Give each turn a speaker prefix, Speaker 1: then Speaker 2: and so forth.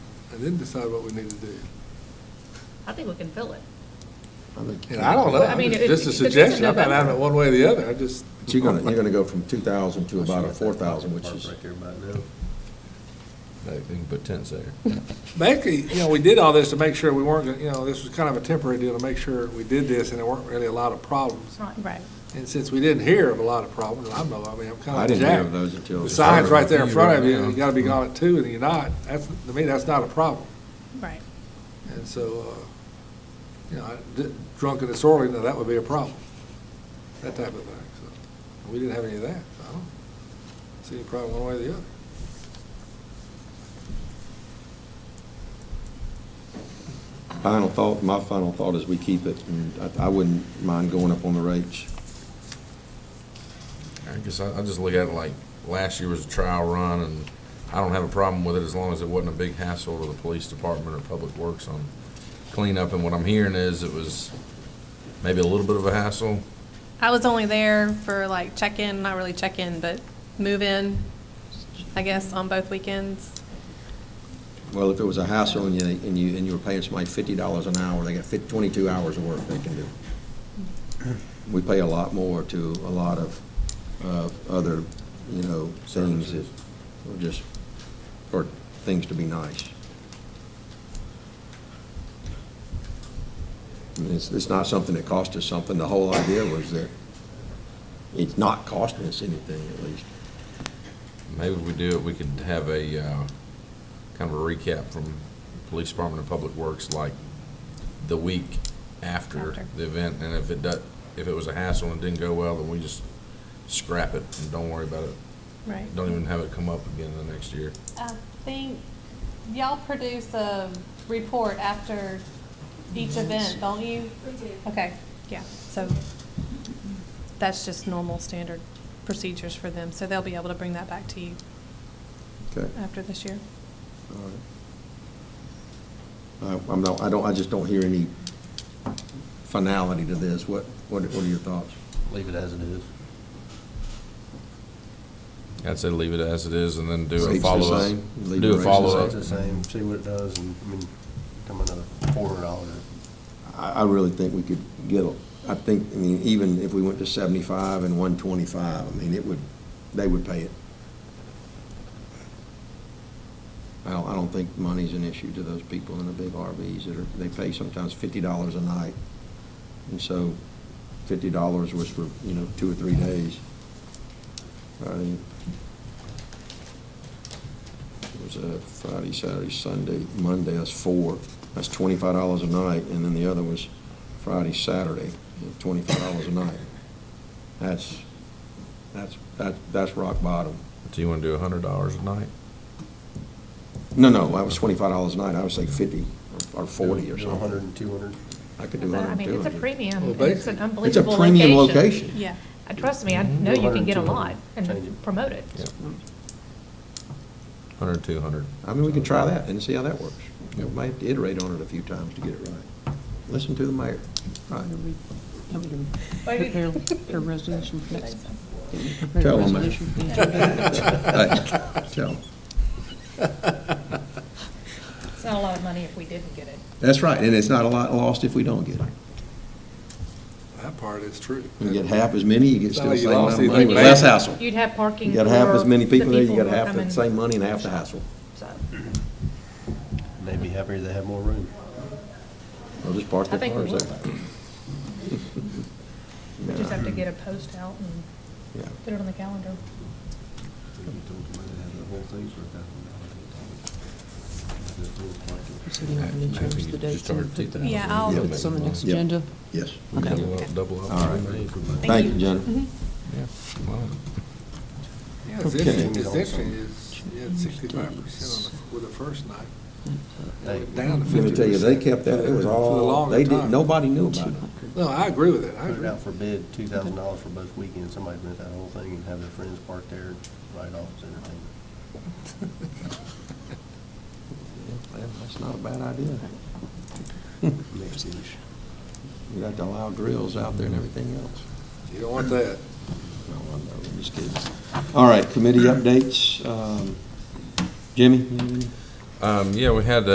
Speaker 1: and then decide what we need to do.
Speaker 2: I think we can fill it.
Speaker 3: I think-
Speaker 1: And I don't know,
Speaker 2: But I
Speaker 1: I'm
Speaker 2: mean,
Speaker 1: just
Speaker 2: it-
Speaker 1: just a
Speaker 2: because it's in
Speaker 1: suggestion, I'm not
Speaker 2: November.
Speaker 1: having it one way or the other, I just.
Speaker 3: But you're gonna, you're gonna go from two thousand to about a four thousand, which is,
Speaker 4: Right there by now.
Speaker 5: They can put tents there.
Speaker 1: Basically, you know, we did all this to make sure we weren't, gonna- you know, this was kind of a temporary deal to make sure we did this and there weren't really a lot of problems.
Speaker 6: Right.
Speaker 1: And since we didn't hear of a lot of problems, I know, I mean, I'm
Speaker 3: I
Speaker 1: kind of
Speaker 3: didn't hear of
Speaker 1: jacked.
Speaker 3: those until.
Speaker 1: The sign's right there in front of you, you gotta be gone at two, and you're not, that's, to me, that's not a problem.
Speaker 6: Right.
Speaker 1: And so, uh, you know, I- d- drunk and disorderly, now that would be a problem, that type of thing, so. We didn't have any of that, so I don't see any problem one way or the other.
Speaker 3: Final thought, my final thought is we keep it, and I, I wouldn't mind going up on the rates.
Speaker 5: I guess I, I just look at it like, last year was a trial run, and I don't have a problem with it as long as it wasn't a big hassle to the police department or public works on cleanup, and what I'm hearing is it was maybe a little bit of a hassle.
Speaker 6: I was only there for like check-in, not really check-in, but move-in, I guess, on both weekends.
Speaker 3: Well, if it was a hassle and you, and you, and you were paying somebody fifty dollars an hour, they got fif- twenty-two hours of work they can do. We pay a lot more to a lot of, uh, other, you know, things that are just, or things to be nice. I mean, It's, it's not something that cost us something. The whole idea was that it's not costing us anything, at least.
Speaker 5: Maybe if we do it, we could have a, uh, kind of a recap from Police Department and Public Works, like, the week after
Speaker 6: After.
Speaker 5: the event, and if it does, if it was a hassle and didn't go well, then we just scrap it and don't worry about it.
Speaker 6: Right.
Speaker 5: Don't even have it come up again the next year.
Speaker 6: I think y'all produce a report after each event, don't you? We do. Okay, yeah, so that's just normal standard procedures for them, so they'll be able to bring that back to you
Speaker 3: Okay.
Speaker 6: after this year.
Speaker 3: All right. Uh, I'm not, I don't, I just don't hear any finality to this. What, what what are your thoughts?
Speaker 4: Leave it as it is.
Speaker 5: I'd say leave it as it is and then do
Speaker 3: Rates
Speaker 5: a
Speaker 3: the
Speaker 5: follow-up.
Speaker 3: same, leave the
Speaker 5: Do a
Speaker 3: rates the
Speaker 5: follow-up.
Speaker 4: It's the same, see what it does, and, I mean, come another four hundred dollars.
Speaker 3: I, I really think we could get, a- I think, I mean, even if we went to seventy-five and one twenty-five, I mean, it would, they would pay it. I don't, I don't think money's an issue to those people in the big RVs that are, they pay sometimes fifty dollars a night. And so fifty dollars was for, you know, two or three days. Friday. It was uh, Friday, Saturday, Sunday, Monday, that's four. That's twenty-five dollars a night, and then the other was Friday, Saturday, twenty-five dollars a night. That's, that's, that, that's rock bottom.
Speaker 5: Do you want to do a hundred dollars a night?
Speaker 3: No, no, that was twenty-five dollars a night, I would say fifty or forty or
Speaker 4: A hundred
Speaker 3: something.
Speaker 4: and two hundred.
Speaker 3: I could do
Speaker 2: But, I
Speaker 3: hundred
Speaker 2: mean,
Speaker 3: and
Speaker 2: it's a
Speaker 3: two
Speaker 2: premium,
Speaker 1: Well,
Speaker 2: and it's an
Speaker 1: basically-
Speaker 3: hundred. It's a
Speaker 2: unbelievable
Speaker 3: premium
Speaker 2: location.
Speaker 3: location.
Speaker 6: Yeah.
Speaker 2: Uh, Trust me, I know you can get a lot
Speaker 4: Change
Speaker 2: and
Speaker 4: it.
Speaker 2: promote it.
Speaker 5: Yeah. Hundred, two hundred.
Speaker 3: I mean, we can try that and see how that works. We might have to iterate on it a few times to get it right. Listen to the mayor. Right.
Speaker 7: Prepare a resolution for next. prepare a
Speaker 3: Tell them,
Speaker 7: resolution for next
Speaker 3: Hey, Tell them.
Speaker 2: It's not a lot of money if we didn't get it.
Speaker 3: That's right, and it's not a lot lost if we don't get it.
Speaker 1: That part is true.
Speaker 3: You get half as many, you get
Speaker 1: It's
Speaker 3: still
Speaker 1: not
Speaker 3: the
Speaker 1: like you
Speaker 3: same amount
Speaker 1: lost
Speaker 3: of money
Speaker 1: anything
Speaker 3: with
Speaker 1: bad.
Speaker 3: less hassle.
Speaker 2: You'd have parking
Speaker 3: You got half as
Speaker 2: for
Speaker 3: many
Speaker 2: the
Speaker 3: people there, you got
Speaker 2: who
Speaker 3: half
Speaker 2: come
Speaker 3: the
Speaker 2: and-
Speaker 3: same money and half the hassle.
Speaker 2: So,
Speaker 4: They'd be happier they have more room.
Speaker 3: They'll just park
Speaker 2: I
Speaker 3: their
Speaker 2: think we
Speaker 3: cars
Speaker 2: will.
Speaker 3: there.
Speaker 2: We just have to get a post out and
Speaker 3: Yeah.
Speaker 2: put it on the calendar.
Speaker 7: You said you wanted to
Speaker 5: Maybe
Speaker 7: change
Speaker 5: you
Speaker 7: the dates
Speaker 5: just start
Speaker 7: and put
Speaker 5: taking
Speaker 7: that-
Speaker 6: Yeah, I'll-
Speaker 3: Yeah.
Speaker 7: It's on the next
Speaker 3: Yeah.
Speaker 7: agenda.
Speaker 3: Yes.
Speaker 7: Okay.
Speaker 5: Double up, double up.
Speaker 3: All right.
Speaker 6: Thank
Speaker 3: Thank you,
Speaker 6: you.
Speaker 3: Jenna.
Speaker 5: Yeah. Well,
Speaker 1: Yeah, it's
Speaker 3: Okay.
Speaker 1: interesting, it's interesting, it's, you had sixty-five percent on the, with the first night, It went down to
Speaker 3: Let
Speaker 1: fifty
Speaker 3: me tell you, they kept that, it was all, they didn't, nobody knew about it.
Speaker 1: No, I agree with it, I
Speaker 4: Put it
Speaker 1: agree.
Speaker 4: out for bid, two thousand dollars for both weekends, somebody rent that whole thing and have their friends park there, right off as entertainment.
Speaker 3: Yeah, That's not a bad idea.
Speaker 4: Next issue.
Speaker 3: You got to allow drills out there and everything else.
Speaker 1: You don't want that.
Speaker 3: No, I'm not- I'm just kidding. All right, committee updates. Um, Jimmy, you have any?
Speaker 5: Um, yeah, we had, uh,